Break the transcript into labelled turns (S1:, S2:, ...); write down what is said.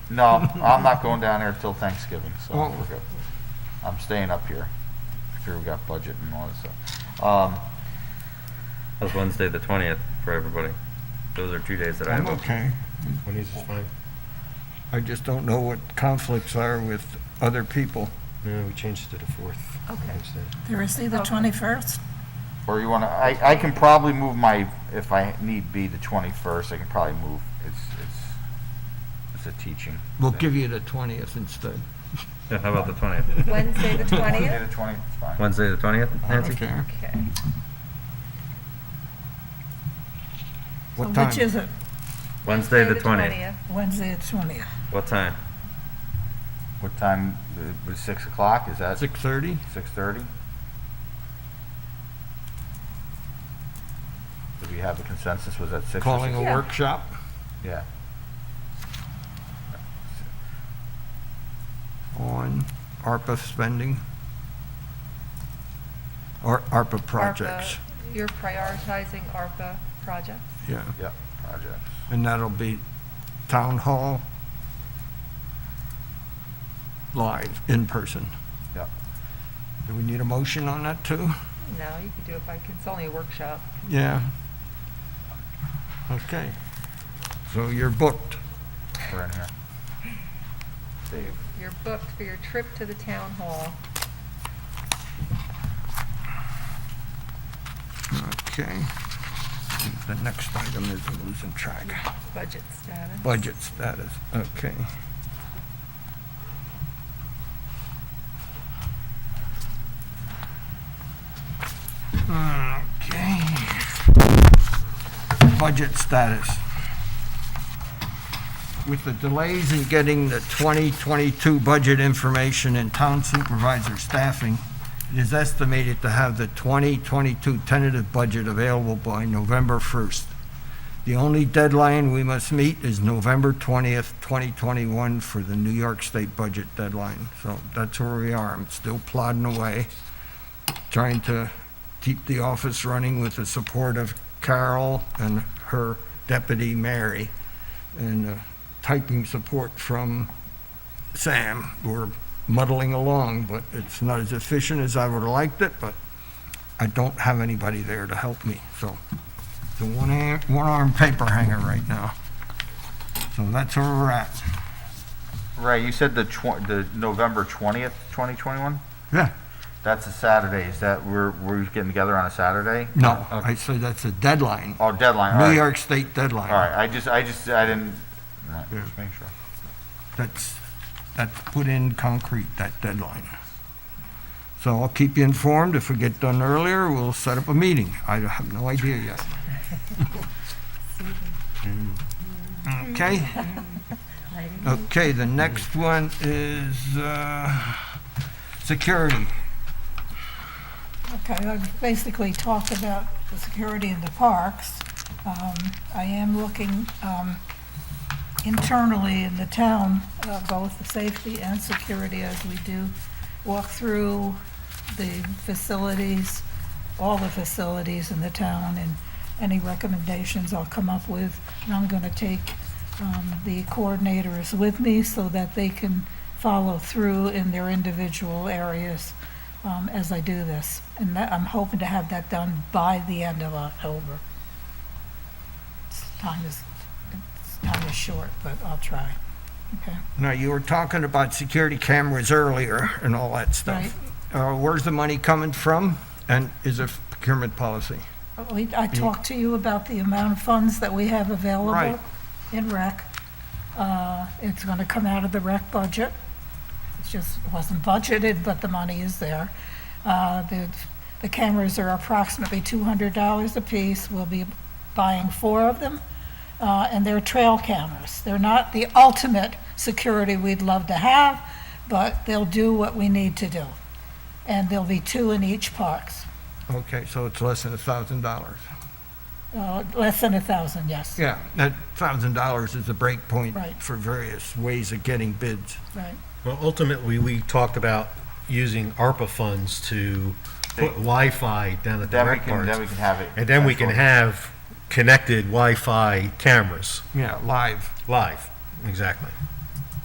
S1: No, I'm not going down there till Thanksgiving, so
S2: Oh.
S1: we're good. I'm staying up here. Up Here we got budget and all that stuff. Um,
S3: That's Wednesday the twentieth for everybody. Those are two days that I
S2: I'm
S3: have.
S2: okay.
S4: Twenties is fine.
S2: I just don't know what conflicts are with other people.
S4: No, we changed it to the fourth.
S5: Okay.
S4: Instead.
S6: Thursday, the
S5: Okay.
S6: 21st?
S1: Or you want to, I, I can probably move my, if I need be, the 21st, I can probably move. It's, it's, it's a teaching.
S2: We'll
S1: thing.
S2: give you the 20th instead.
S3: Yeah, how about the twentieth?
S5: Wednesday, the
S1: Wednesday
S5: 20th?
S1: the 20th, it's fine.
S3: Wednesday the twentieth,
S2: I don't
S3: Nancy?
S2: care.
S5: Okay.
S6: So
S2: What time?
S6: Which is it?
S3: Wednesday the twentieth.
S6: Wednesday, the 20th.
S3: What time?
S1: What time, uh, was 6 o'clock, is that
S2: 6:30?
S1: 6:30? Did we have a consensus, was that 6? or
S2: Calling a
S5: Yeah.
S2: workshop?
S1: six- Yeah.
S2: on ARPA spending? Or ARPA projects?
S5: ARPA, You're prioritizing ARPA projects?
S2: Yeah,
S1: Yep, projects.
S2: and that'll be town hall, live, in person.
S1: Yep.
S2: Do we need a motion on that too?
S5: No, you could do it by, it's only a workshop.
S2: Yeah. Okay. So you're booked.
S1: We're in here. Dave,
S5: You're booked for your trip to the town hall.
S2: Okay. The next item is I'm losing track.
S5: Budget status.
S2: Budget status, okay. Okay. Budget status. With the delays in getting the 2022 budget information and town supervisor staffing, it is estimated to have the 2022 tentative budget available by November 1st. The only deadline we must meet is November 20th, 2021 for the New York State budget deadline. So that's where we are. I'm still plodding away, trying to keep the office running with the support of Carol and her deputy, Mary, and uh, typing support from Sam. We're muddling along, but it's not as efficient as I would have liked it, but I don't have anybody there to help me, so the one arm, one arm paper hanger right now. So that's where we're at.
S1: Ray, you said the tw- the November 20th, 2021?
S2: Yeah.
S1: That's a Saturday, is that, we're, we're getting together on a Saturday?
S2: No,
S1: Okay.
S2: I say that's a deadline,
S1: Oh, deadline, all right.
S2: New York State deadline.
S1: All right, I just, I just, I didn't, no,
S2: Yeah.
S1: just make sure.
S2: That's, that's put in concrete, that deadline. So I'll keep you informed. If we get done earlier, we'll set up a meeting. I have no idea yet. Okay? Okay, the next one is, uh, security.
S6: Okay, I basically talked about the security in the parks. Um, I am looking um, internally in the town, uh, both the safety and security, as we do walk through the facilities, all the facilities in the town, and any recommendations I'll come up with. And I'm going to take um, the coordinators with me so that they can follow through in their individual areas um, as I do this. And that, I'm hoping to have that done by the end of October. It's- Time is, it's- time is short, but I'll try. Okay,
S2: Now, you were talking about security cameras earlier and all that stuff. Uh, Where's the money coming from, and is it procurement policy?
S6: Uh, we- I talked to you about the amount of funds that we have available
S2: Right.
S6: in rec. Uh, It's going to come out of the rec budget. It just wasn't budgeted, but the money is there. Uh, The the cameras are approximately $200 apiece. We'll be buying four of them. uh, and they're trail cameras. They're not the ultimate security we'd love to have, but they'll do what we need to do. And there'll be two in each parks,
S2: Okay, so it's less than a thousand dollars.
S6: Uh, less than a thousand, yes.
S2: Yeah, that thousand dollars is a break point
S6: Right.
S2: for various ways of getting bids.
S6: Right.
S4: Well, ultimately, we talked about using ARPA funds to put Wi-Fi down at the
S1: Then we
S4: rec
S1: can, then we
S4: parks.
S1: can have it.
S4: And then we can
S1: actually.
S4: have connected Wi-Fi cameras
S2: Yeah, live.
S4: live. Exactly.